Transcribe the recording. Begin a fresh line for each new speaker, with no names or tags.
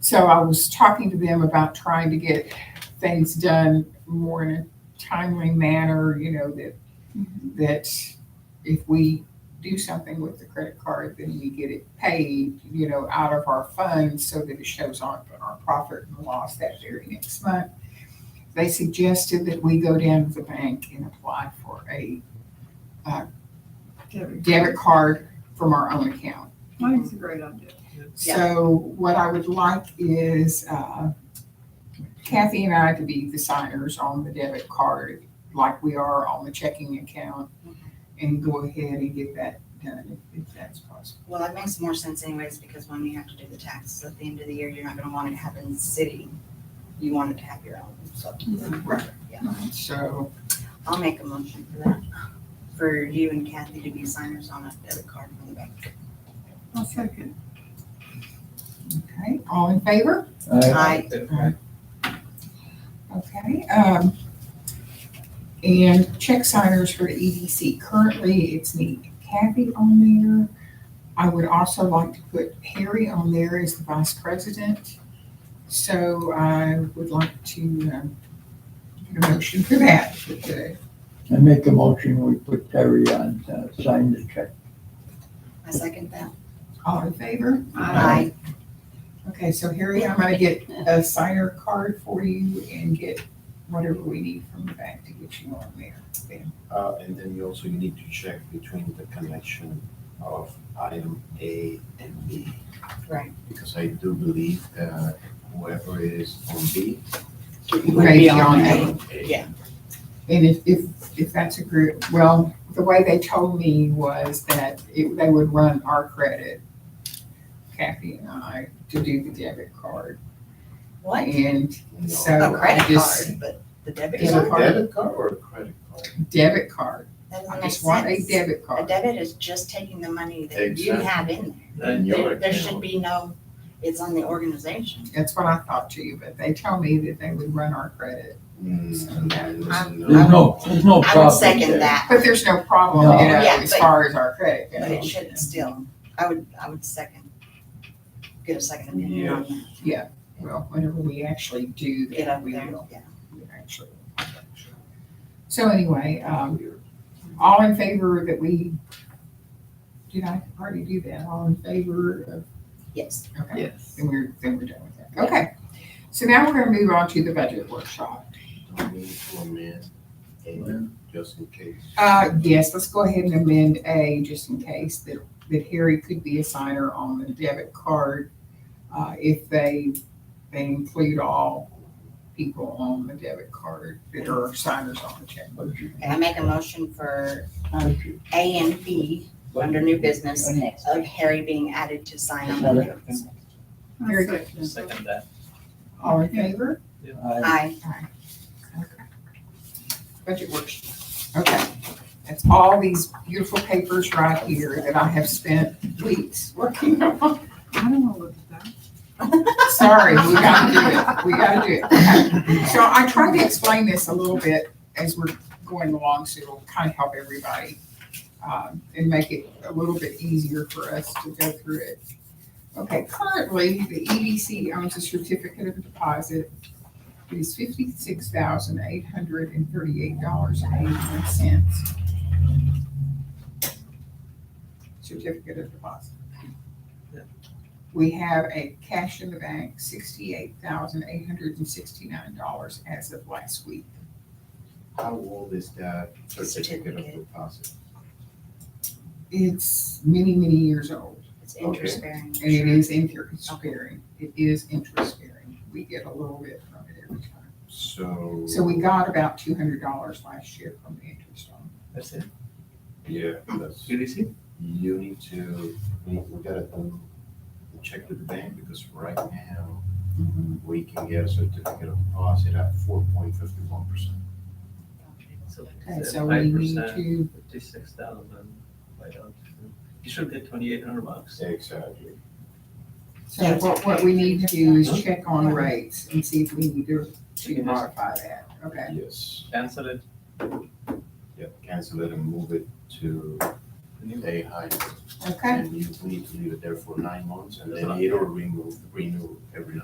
So I was talking to them about trying to get things done more in a timely manner, you know, that, that if we do something with the credit card, then we get it paid, you know, out of our funds so that it shows on our profit and loss that very next month. They suggested that we go down to the bank and apply for a uh, debit card from our own account.
I think it's a great idea.
Yeah.
So what I would like is uh, Kathy and I to be the signers on the debit card, like we are on the checking account,
Mm-hmm.
and go ahead and get that done if if that's possible.
Well, that makes more sense anyways, because when you have to do the taxes at the end of the year, you're not gonna want it to happen in the city. You want it to have your own, so.
Right.
Yeah,
So,
I'll make a motion for that, for you and Kathy to be signers on a debit card from the bank.
I'll second.
okay, all in favor?
Aye.
Okay. um, And check signers for the EDC. Currently, it's me, Kathy on there. I would also like to put Harry on there as the vice president. So I would like to um, get a motion for that. with the-
I make a motion, we put Terry on, uh, sign the check.
I second that.
All in favor?
Aye.
Okay, so Harry, I'm gonna get a signer card for you and get whatever we need from the bank to get you on there. then.
Uh, and then you also need to check between the connection of item A and B.
Right.
Because I do believe, uh, whoever is on B.
would
be on
will
A.
A.
Yeah.
And if, if, if that's a group, well, the way they told me was that it, they would run our credit, Kathy and I, to do the debit card.
What?
And
No.
So-
A credit
I just-
card, but the debit
Is it
Debit
card?
a
card.
debit card or a credit card?
debit card,
That
I
doesn't make
just want a
sense.
debit
A
card.
debit is just taking the money that you
Exactly.
have in
And
there.
your
There, there should
account.
be no, it's on the organization.
That's what I thought to you, but they told me that they would run our credit.
Mm,
There's no, there's no
I would
problem
second
there.
that.
But there's no problem,
No.
you know,
Yeah,
as
but-
far as our credit
But it
goes.
should still, I would, I would second, get a second opinion on that,
Well, whenever we actually do
get
that,
up
we
there,
will
yeah.
we actually. So anyway, um, All in favor that we, did I already do that? All in favor of,
Yes,
okay,
Yes.
then we're, then we're done with that. Okay. So now we're gonna move on to the budget workshop.
Do we need to amend A just in case?
Uh, yes, let's go ahead and amend A just in case that, that Harry could be a signer on the debit card. Uh, if they, they include all people on the debit card that are signers on the check.
But you-
and I make a motion for
but you-
A and B
but
under new business
Go next.
of Harry being added to sign on the bills.
Very
I second.
Second that.
All in favor?
I-
Aye,
Budget workshop. Okay. That's all these beautiful papers right here that I have spent weeks working on.
I don't want to look at that.
Sorry, we gotta do it. We gotta do it. Okay. So I tried to explain this a little bit as we're going along, so it'll kind of help everybody um, and make it a little bit easier for us to go through it. Okay, currently, the EDC owns a certificate of deposit it is fifty-six thousand eight hundred and thirty-eight dollars and eighty-one cents. Certificate of deposit.
Yeah.
We have a cash in the bank, sixty-eight thousand eight hundred and sixty-nine dollars as of last week.
How old is that certificate of
Certificate.
deposit?
It's many, many years old,
it's interest bearing.
and it is interest bearing. It is interest bearing. We get a little bit from it every time.
So.
So we got about two hundred dollars last year from the interest on it.
That's it.
Yeah, that's.
You receive?
you need to, we, we gotta um, check with the bank because right now, we can get a certificate of deposit at four point fifty-one percent.
So
Okay,
it's
so we
five
need
percent,
to,
fifty-six thousand, five dollars. You should get twenty-eight hundred bucks.
Exactly.
so what, what we need to do is check on rates and see if we need to, to modify that, okay?
Yes.
Cancel it.
Yep, cancel it and move it to
the new-
a high.
Okay,
And you need to leave it there for nine months and
That's
then
not-
it'll remove, renew every